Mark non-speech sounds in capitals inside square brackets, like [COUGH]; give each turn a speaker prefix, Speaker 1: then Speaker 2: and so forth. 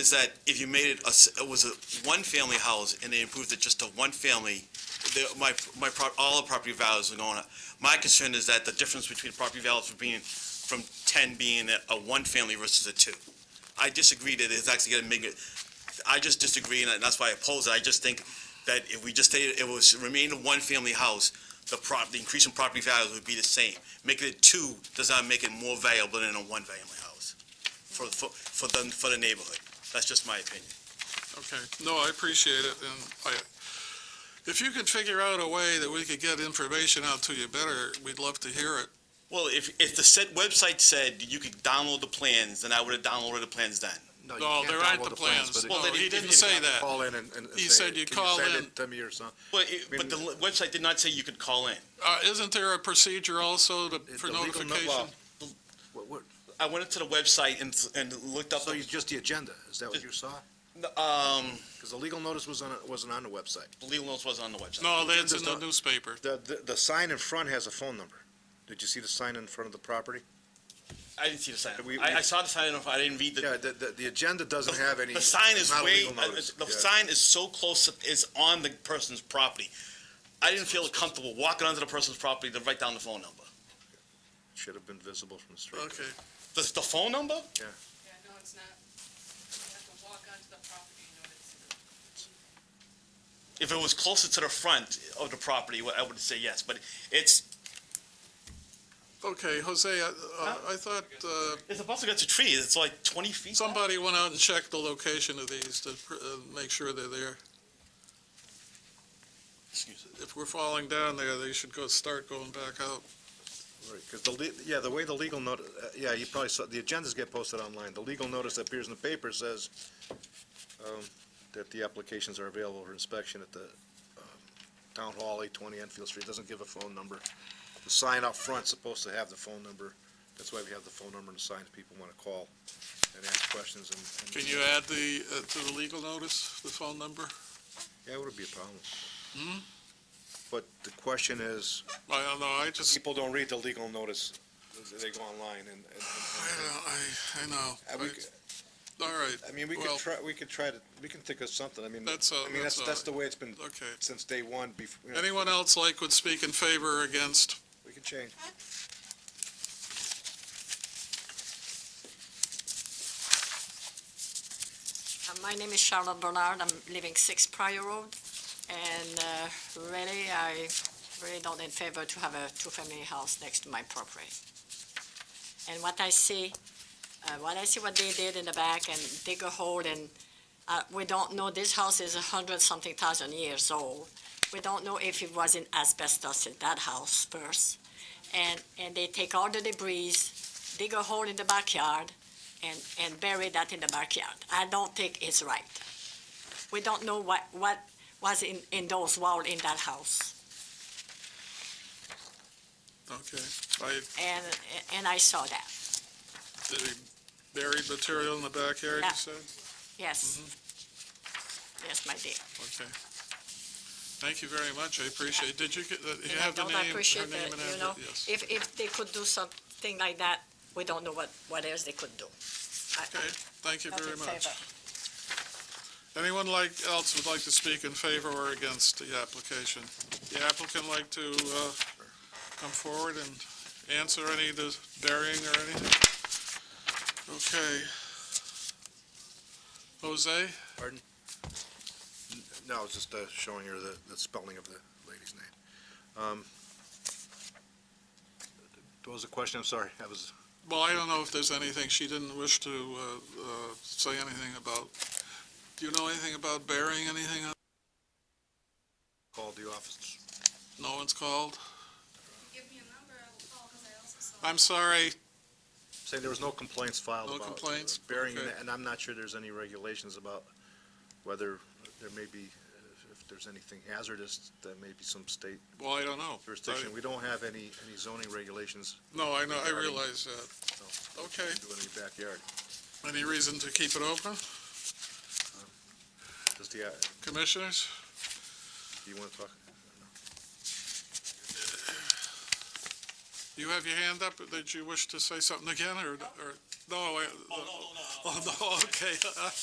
Speaker 1: is that if you made it, a s- it was a one-family house and they improved it just to one family, the, my, my, pro- all the property values are going up. My concern is that the difference between property values from being, from ten being a, a one-family versus a two. I disagree that it's actually gonna make it, I just disagree and that's why I oppose it. I just think that if we just stayed, it was, remained a one-family house, the prop, the increase in property values would be the same. Making it two does not make it more valuable than a one-family house for, for, for the, for the neighborhood. That's just my opinion.
Speaker 2: Okay, no, I appreciate it, and I, if you could figure out a way that we could get information out to you better, we'd love to hear it.
Speaker 1: Well, if, if the said website said you could download the plans, then I would have downloaded the plans then.
Speaker 3: you
Speaker 2: No,
Speaker 3: can't
Speaker 2: there aren't
Speaker 3: download
Speaker 2: the plans.
Speaker 3: but
Speaker 2: No,
Speaker 1: Well, then
Speaker 2: he
Speaker 1: if-
Speaker 2: didn't
Speaker 1: if-
Speaker 2: say
Speaker 3: you
Speaker 2: that.
Speaker 3: Call in and, and
Speaker 2: He
Speaker 3: say,
Speaker 2: said you
Speaker 3: "Can
Speaker 2: call
Speaker 3: send
Speaker 2: in."
Speaker 3: it to me or something.
Speaker 1: But, it- but the le- website did not say you could call in.
Speaker 2: Uh, isn't there a procedure also to,
Speaker 3: It's
Speaker 2: for
Speaker 3: a legal no-
Speaker 2: notification?
Speaker 3: well, What, what,
Speaker 1: I went into the website and, and looked up,
Speaker 3: so
Speaker 1: the-
Speaker 3: it's just the agenda, is that what you saw?
Speaker 1: um,
Speaker 3: Because the legal notice was on, wasn't on the website.
Speaker 1: legal notice wasn't on the website.
Speaker 2: No, that's in the
Speaker 3: Just a-
Speaker 2: newspaper.
Speaker 3: The, the, the sign in front has a phone number. Did you see the sign in front of the property?
Speaker 1: I didn't see the sign.
Speaker 3: We-
Speaker 1: I, I
Speaker 3: we-
Speaker 1: saw the sign, I didn't read the.
Speaker 3: Yeah, the, the, the agenda [LAUGHS] doesn't have any.
Speaker 1: The sign is
Speaker 3: not a
Speaker 1: way, uh,
Speaker 3: legal notice.
Speaker 1: the
Speaker 3: Yeah.
Speaker 1: sign is so close, it's on the person's property. I didn't feel comfortable walking onto the person's property to write down the phone number.
Speaker 3: Should have been visible from the street.
Speaker 2: Okay,
Speaker 1: The, the phone number?
Speaker 4: Yeah, no, it's not. You have to walk onto the property in order to see it.
Speaker 1: If it was closer to the front of the property, I would say yes, but it's,
Speaker 2: okay, Jose, I, uh, I thought, uh,
Speaker 1: it's about to get to trees, it's like twenty feet. back.
Speaker 2: somebody went out and checked the location of these to, pr- uh, make sure they're there.
Speaker 1: Excuse me.
Speaker 2: If we're falling down there, they should go, start going back out.
Speaker 3: Because the, le- yeah, the way the legal notice, yeah, you probably saw, the agendas get posted online. The legal notice that appears in the paper says um, that the applications are available for inspection at the um, Town Hall, 820 Enfield Street. It Doesn't give a phone number. The sign up front's supposed to have the phone number. That's why we have the phone number and the signs. People want to call and ask questions and. and-
Speaker 2: Can you add the, uh, to the legal notice, the phone number?
Speaker 3: Yeah, it would be a problem.
Speaker 2: Hmm?
Speaker 3: But the question is,
Speaker 2: I don't know, I just,
Speaker 3: people don't read the legal notice. They go online and. and-
Speaker 2: I
Speaker 3: and-
Speaker 2: don't, I, I know.
Speaker 3: Uh, we c-
Speaker 2: All right,
Speaker 3: I mean, we could
Speaker 2: Well-
Speaker 3: try, we could try to, we can think of something, I mean,
Speaker 2: That's, uh,
Speaker 3: I mean,
Speaker 2: that's,
Speaker 3: that's, that's
Speaker 2: uh,
Speaker 3: the way it's been
Speaker 2: okay.
Speaker 3: since day one, before,
Speaker 2: Anyone else like would speak in favor or against?
Speaker 3: we can change.
Speaker 5: Uh, My name is Charlotte Bernard. I'm living Six Prior Road. And uh, really, I really don't in favor to have a two-family house next to my property. And what I see, uh, what I see what they did in the back and dig a hole and uh, we don't know, this house is a hundred something thousand years old. We don't know if it was in asbestos in that house first. And, and they take all the debris, dig a hole in the backyard, and, and bury that in the backyard. I don't think it's right. We don't know what, what was in, in those walls in that house.
Speaker 2: Okay, I,
Speaker 5: And, and I saw that,
Speaker 2: did he buried material in the backyard, you
Speaker 5: Yeah.
Speaker 2: said?
Speaker 5: yes. Yes, my dear.
Speaker 2: Okay. Thank you very much, I appreciate, did you get, that- you
Speaker 5: And I
Speaker 2: have the
Speaker 5: don't
Speaker 2: name, her name and
Speaker 5: appreciate that, you know,
Speaker 2: address? Yes.
Speaker 5: If, if they could do something like that, we don't know what, what else they could do. I- I'm
Speaker 2: Okay, thank you
Speaker 5: not in
Speaker 2: very much.
Speaker 5: favor.
Speaker 2: Anyone like, else would like to speak in favor or against the application? The applicant like to, uh, come forward and answer any of the burying or anything? Okay. Jose?
Speaker 3: No, it's just, uh, showing her the, the spelling of the lady's name. Um, What was the question, I'm sorry, that was,
Speaker 2: Well, I don't know if there's anything, she didn't wish to uh, uh, say anything about, do you know anything about burying anything?
Speaker 3: called the office.
Speaker 2: No one's called?
Speaker 4: Give me a number, I will call, because I also saw.
Speaker 2: I'm sorry,
Speaker 3: Saying there was no complaints filed
Speaker 2: No
Speaker 3: about. uh,
Speaker 2: complaints?
Speaker 3: Burying,
Speaker 2: Okay.
Speaker 3: it, and I'm not sure there's any regulations about whether there may be, uh, if there's anything hazardous, there may be some state
Speaker 2: well, I don't know.
Speaker 3: jurisdiction. We don't have any, any zoning regulations
Speaker 2: I- No, I know, I
Speaker 3: Regarding-
Speaker 2: realize that. Okay,
Speaker 3: doing in the backyard.
Speaker 2: any reason to keep it open,
Speaker 3: Does the, uh,
Speaker 2: commissioners?
Speaker 3: do you want to talk?
Speaker 2: You have your hand up, did you wish to say something again, or, or, no, I,
Speaker 1: Oh, no, no, no, no.
Speaker 2: oh, no, [LAUGHS] okay.